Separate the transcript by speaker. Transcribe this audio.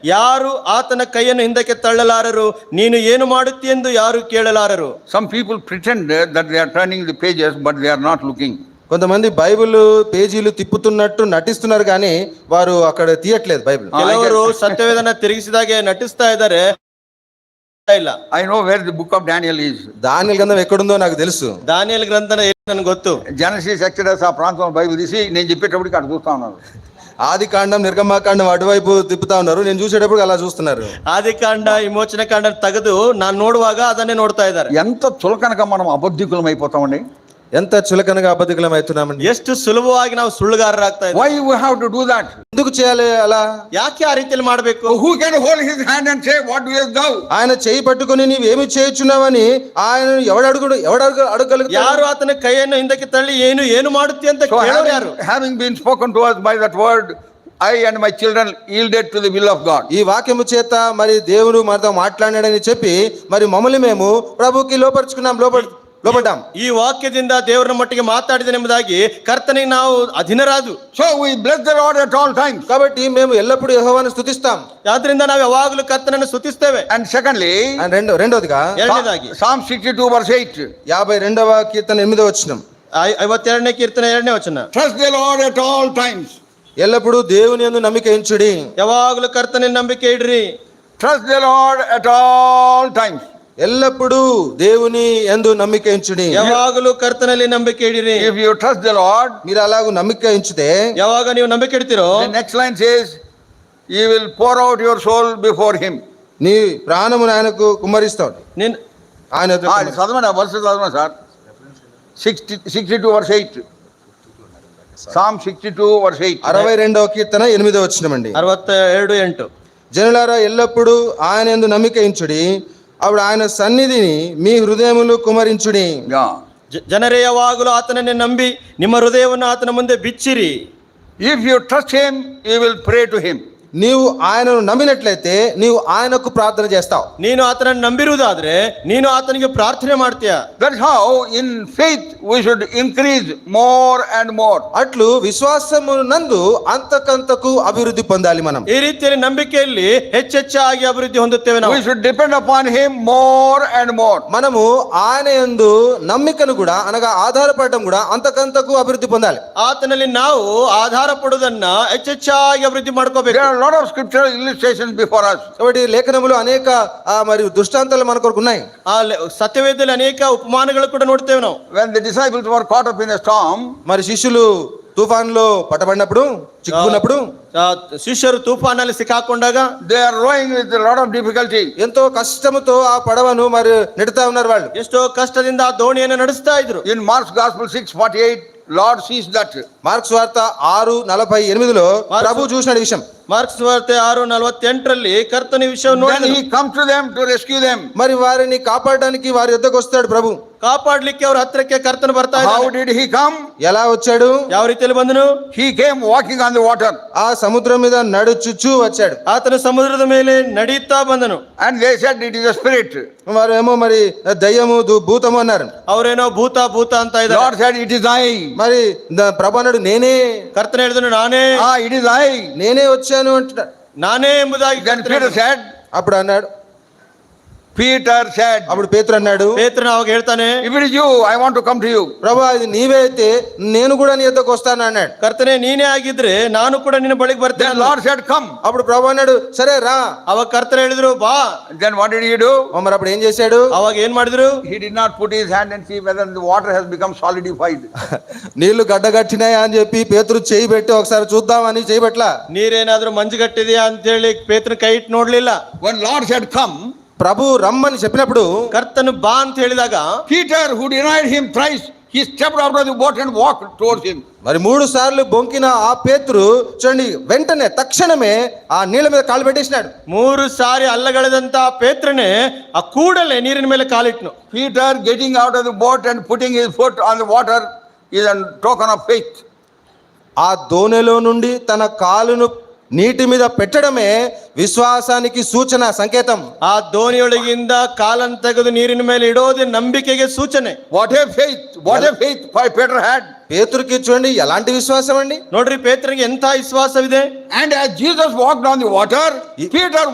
Speaker 1: ಯಾರು ಆತನ ಕೈಯನ್ನು ಹಿಂದಕ್ಕೆ ತಳ್ಳಲಾರರು ನೀನು ಏನು ಮಾಡುತ್ತೀಯೆಂದು ಯಾರು ಕೇಳಲಾರರು
Speaker 2: Some people pretend that that they are turning the pages, but they are not looking.
Speaker 3: కొంతమంది బైబిల్ పేజీలు తిప్పుతున్నట్టు నటిస్తున్నారు కానీ వారు అక్కడ తీయట్లేదు బైబిల్
Speaker 2: ఆ,
Speaker 1: ಕೆಲವರು ಸತ್ಯವೇದನ ತಿರುಗಿಸಿದಾಗೆ ನಟಿಸ್ತಾ ಇದ್ದಾರೆ ಇಲ್ಲ
Speaker 2: I know where the book of Daniel is.
Speaker 3: Daniel గంధం ఎక్కడుందో నాకు తెలుసు
Speaker 1: ದಾನಿಯಲ್ గ్రంಥನ ಎಲ್ಲಿ ನನಗೆ ಗೊತ್ತು
Speaker 2: జనసిస్ ఎక్సడస్ ఆ ప్రాంతం బైబిల్ తీసి నేను చెప్పేటప్పటికి అక్కడ చూస్తా ఉన్నారు
Speaker 3: ఆది కాండం నిర్గమాకాండం అటువైపు తిప్పుతా ఉన్నారు నేను చూసేటప్పుడు అలా చూస్తున్నారు
Speaker 1: ಆದಿಕಾಂಡ ವಿಮೋಚನ ಕಾಂಡ ತೆಗೆದು ನಾನು ನೋಡುವಾಗ ಅದನ್ನೇ ನೋಡ್ತಾ ಇದ್ದಾರೆ
Speaker 2: ఎంత చులకనగా మనం అబద్ధికులం అయిపోతామండి
Speaker 3: ఎంత చులకనగా అబద్ధికులం అవుతున్నామండి
Speaker 1: ಎಷ್ಟು ಸುಲಭವಾಗಿ ನಾವು ಸುಳ್ಳುಗಾರರಾಗ್ತಾ ಇದ್ದಾರೆ
Speaker 2: why you have to do that
Speaker 3: ఎందుకు చేయాలి అలా
Speaker 1: ಯಾಕೆ ಆ ರೀತಿಯಲ್ಲಿ ಮಾಡಬೇಕು
Speaker 2: who can hold his hand and say what you thou
Speaker 3: ఆయన చేయి పట్టుకుని నీవేమి చేయుచున్నావని ఆయన ఎవడు అడుగుడు ఎవడు అడుగు
Speaker 1: ಯಾರು
Speaker 3: అడగలుగుతారు
Speaker 1: ಆತನ ಕೈಯನ್ನು ಹಿಂದಕ್ಕೆ ತಳ್ಳಿ ಏನು ಏನು ಮಾಡುತ್ತಿ ಅಂತ
Speaker 2: సో
Speaker 1: ಕೇಳೋರು ಯಾರು
Speaker 2: having been spoken to us by that word I and my children yielded to the will of God
Speaker 3: ఈ వాక్యము చేత మరి దేవుడు మనతో మాట్లాడాడని చెప్పి మరి మమ్మల్ని మేము ప్రభుకి లోపరుచుకున్నాం లోప లోపడ్డాం
Speaker 1: ಈ ವಾಕ್ಯದಿಂದ ದೇವರ ಮಟ್ಟಿಗೆ ಮಾತಾಡಿದನೆಂಬುದಾಗಿ ಕರ್ತನಿಗೆ ನಾವು ಅಧೀನರಾದು
Speaker 2: so we bless the lord at all times
Speaker 3: కాబట్టి మేము ఎల్లప్పుడూ యెహోవాను స్థుతిస్తాం
Speaker 1: ಆದ್ರಿಂದ ನಾವು ಯಾವಾಗಲೂ ಕರ್ತನನ್ನು ಸ್ತುತಿಸ್ತೇವೆ
Speaker 2: అండ్ సెకండ్లీ
Speaker 3: అండ్ రెండో రెండోదిగా
Speaker 1: ಎರಡನೇದಾಗಿ
Speaker 2: psalm sixty two verse eight
Speaker 3: యాభై రెండవ కీర్తన ఎనిమిదో వచ్చినం
Speaker 1: ಐ- ಐವತ್ತೆರಡನೇ ಕೀರ್ತನೆ ಎರಡನೇ ವಚನ
Speaker 2: trust the lord at all times
Speaker 3: ఎల్లప్పుడూ దేవుని యందు నమ్మిక ఉంచుడి
Speaker 1: ಯಾವಾಗಲೂ ಕರ್ತನಲ್ಲಿ ನಂಬಿಕೆ ಇಡ್ರಿ
Speaker 2: trust the lord at all times
Speaker 3: ఎల్లప్పుడూ దేవుని యందు నమ్మిక ఉంచుడి
Speaker 1: ಯಾವಾಗಲೂ ಕರ್ತನಲ್ಲಿ ನಂಬಿಕೆ ಇಡಿರಿ
Speaker 2: if you trust the lord
Speaker 3: మీరు అలాగూ నమ్మిక ఉంచితే
Speaker 1: ಯಾವಾಗ ನೀವು ನಂಬಿಕೆ ಇಡ್ತೀರೋ
Speaker 2: The next line says, You will pour out your soul before him.
Speaker 3: నీ ప్రాణము ఆయనకు కుమ్మరిస్తాడు
Speaker 1: ನಿನ್
Speaker 3: ఆయన
Speaker 2: Ah, ఇది చదవండి ఆ verse చదవండి sir sixty sixty two verse eight psalm sixty two verse eight
Speaker 3: అరవై రెండవ కీర్తన ఎనిమిదో వచ్చినమండి
Speaker 1: ಅರವತ್ತ ಎರಡು ಎಂಟು
Speaker 3: జనులారా ఎల్లప్పుడూ ఆయన ఎందు నమ్మిక ఉంచుడి అప్పుడు ఆయన సన్నిధిని మీ హృదయములు కుమరించుడి
Speaker 1: ಜ- ಜನರೇ ಯಾವಾಗಲೂ ಆತನನ್ನೇ ನಂಬಿ ನಿಮ್ಮ ಹೃದಯವನ್ನು ಆತನ ಮುಂದೆ ಬಿಚ್ಚಿರಿ
Speaker 2: if you trust him you will pray to him
Speaker 3: నీవు ఆయనను నమ్మినట్లయితే నీవు ఆయనకు ప్రార్థన చేస్తావు
Speaker 1: ನೀನು ಆತನನ್ನು ನಂಬಿರುವುದಾದ್ರೆ ನೀನು ఆతనికి ప్రార్థన ಮಾಡ್ತೀಯ
Speaker 2: that how in faith we should increase more and more
Speaker 3: అట్లు విశ్వాసము నందు అంతకంతకు అభివృద్ధి పొందాలి మనం
Speaker 1: ಈ ರೀತಿಯಲ್ಲಿ ನಂಬಿಕೆಯಲ್ಲಿ ಹೆಚ್ಚೆಚ್ಚಾಗಿ ಅಭಿವೃದ್ಧಿ ಹೊಂದುತ್ತೇವೆ ನಾವು
Speaker 2: we should depend upon him more and more
Speaker 3: మనము ఆయన ఎందు నమ్మికను కూడా అనగా ఆధారపడటం కూడా అంతకంతకు అభివృద్ధి పొందాలి
Speaker 1: ಆತನಲ್ಲಿ ನಾವು ಆಧಾರ ಪಡುವುದನ್ನ ಹೆಚ್ಚೆಚ್ಚಾಗಿ అభివృద్ధి ಮಾಡ್ಕೋಬೇಕು
Speaker 2: there are lot of scripture illustrations before us
Speaker 3: కాబట్టి లేఖనములు అనేక ఆ, మరి దృష్టాంతాలు మన కొరకు ఉన్నాయి
Speaker 1: ಆ ಲೆ- ಸತ್ಯವೇದದಲ್ಲಿ ಅನೇಕ ಉಪಮಾನಗಳು ಕೂಡ ನೋಡ್ತೇವೆ ನಾವು
Speaker 2: when the disciples were caught up in a storm
Speaker 3: మరి శిష్యులు తుఫాన్లో పట్టబడినప్పుడు చిక్కుకున్నప్పుడు
Speaker 1: ಆ, ಶಿಷ್ಯರು ತೂಫಾನಲ್ಲಿ ಸಿಕ್ಕಾಕೊಂಡಾಗ
Speaker 2: they are rowing with lot of difficulty
Speaker 3: ఎంతో కష్టముతో ఆ పడవను మరి నెడతా ఉన్నారు వాళ్ళు
Speaker 1: ಎಷ್ಟೋ ಕಷ್ಟದಿಂದ ಆ ದೋಣಿಯನ್ನು ನಡೆಸ್ತಾ ಇದ್ರು
Speaker 2: In Mark's Gospel six forty eight, Lord sees that.
Speaker 3: Mark's వార్త ఆరు నలభై ఎనిమిదిలో ప్రభు చూసిన విషయం
Speaker 1: ಮಾರ್ಕ್ಸ್ ವಾರ್ತೆ ಆರು ನಲವತ್ತೆಂಟರಲ್ಲಿ ಕರ್ತನ ವಿಷಯವನ್ನು
Speaker 2: Then
Speaker 1: ನೋಡಿದನು
Speaker 2: he comes to them to rescue them.
Speaker 3: మరి వారిని కాపాడడానికి వారి యుద్ధకు వస్తాడు ప్రభు
Speaker 1: ಕಾಪಾಡ್ಲಿಕ್ಕೆ ಅವ್ರ ಹತ್ರಕ್ಕೆ ಕರ್ತನ ಬರ್ತಾ
Speaker 2: How
Speaker 1: ಇದ್ದಾನೆ
Speaker 2: did he come?
Speaker 3: ఎలా వచ్చాడు
Speaker 1: ಯಾವ ರೀತಿಯಲ್ಲಿ ಬಂದನು
Speaker 2: He came walking on the water.
Speaker 3: ఆ సముద్రం మీద నడుచుచూ వచ్చాడు
Speaker 1: ಆತನು ಸಮುದ್ರದ ಮೇಲೆ ನಡೆಯುತ್ತಾ ಬಂದನು
Speaker 2: And they said it is a spirit.
Speaker 3: వారేమో మరి దయ్యము దు- భూతము అన్నారు
Speaker 1: ಅವರೇನೋ ಭೂತ ಭೂತ ಅಂತ
Speaker 2: Lord
Speaker 1: ಇದ್ದಾರೆ
Speaker 2: said it is I.
Speaker 3: మరి ద- ప్రభు అన్నాడు నేనే
Speaker 1: ಕರ್ತನ ಹೇಳಿದನು ನಾನೇ
Speaker 2: Ah, it is I.
Speaker 3: నేనే వచ్చాను అంటున్నాడు
Speaker 1: ನಾನೇ ಎಂಬುದಾಗಿ
Speaker 2: Then
Speaker 1: ಕರ್ತನು
Speaker 2: Peter
Speaker 1: ಹೇಳಿದನು.
Speaker 2: said,
Speaker 3: అప్పుడు అన్నాడు
Speaker 2: Peter said,
Speaker 3: అప్పుడు పేతురు అన్నాడు
Speaker 1: ಪೇತ್ರನು ಅವಾಗ ಹೇಳ್ತಾನೆ
Speaker 2: If it is you, I want to come to you.
Speaker 3: ప్రభు అది నీవే అయితే నేను కూడా నీ యుద్ధకు వస్తాను అన్నాడు
Speaker 1: ಕರ್ತನೆ ನೀನೇ ಆಗಿದ್ರೆ ನಾನು ಕೂಡ ನಿನ್ನ ಬಳಿಗೆ ಬರ್ತೇನೆ
Speaker 2: Then Lord said, Come.
Speaker 3: అప్పుడు ప్రభు అన్నాడు సరే రా
Speaker 1: ಅವಾಗ ಕರ್ತನ ಹೇಳಿದ್ರು ಬಾ
Speaker 2: Then what did he do?
Speaker 3: మరి అప్పుడు ఏం చేశాడు
Speaker 1: ಅವಾಗ ಏನ್ ಮಾಡಿದ್ರು
Speaker 2: He did not put his hand and see whether the water has become solidified.
Speaker 3: నీళ్లు గడ్డగట్టినాయా అని చెప్పి పేతురు చేయి పెట్టి ఒకసారి చూద్దామని చేయి పెట్టలా
Speaker 1: ನೀರೇನಾದ್ರೂ ಮಂಜುಗಟ್ಟಿದೆಯಾ ಅಂತ ಹೇಳಿ ಪೇತ್ರನ ಕೈ ಇಟ್ಟು ನೋಡ್ಲಿಲ್ಲ
Speaker 2: When Lord said, Come,
Speaker 3: ప్రభు రమ్మని చెప్పినప్పుడు
Speaker 1: ಕರ್ತನು ಬಾ ಅಂತ ಹೇಳಿದಾಗ
Speaker 2: Peter, who denied him thrice, he stepped out of the boat and walked towards him.
Speaker 3: మరి మూడు సార్లు బొంకిన ఆ పేతురు చూడండి వెంటనే తక్షణమే ఆ నీళ్ళ మీద కాలు పెట్టేసినాడు
Speaker 1: ಮೂರು ಸಾರಿ ಅಲ್ಲಗಳೆದಂತ ಪೇತ್ರನೇ ಆ ಕೂಡಲೇ ನೀರಿನ ಮೇಲೆ ಕಾಲಿಟ್ನು
Speaker 2: Peter getting out of the boat and putting his foot on the water is a token of faith.
Speaker 3: ఆ దోణిలో నుండి తన కాలును నీటి మీద పెట్టడమే విశ్వాసానికి సూచన సంకేతం
Speaker 1: ಆ ದೋಣಿಯೊಳಗಿಂದ ಕಾಲನ್ನು ತೆಗೆದು ನೀರಿನ ಮೇಲೆ ಇಡೋದೇ ನಂಬಿಕೆಗೆ ಸೂಚನೆ
Speaker 2: What a faith! What a faith Peter had!
Speaker 3: పేతురుకి చూడండి ఎలాంటి విశ్వాసం అండి
Speaker 1: ನೋಡ್ರಿ ಪೇತ್ರನಿಗೆ ಎಂಥ ವಿಶ್ವಾಸವಿದೆ
Speaker 2: And as Jesus walked on the water, Peter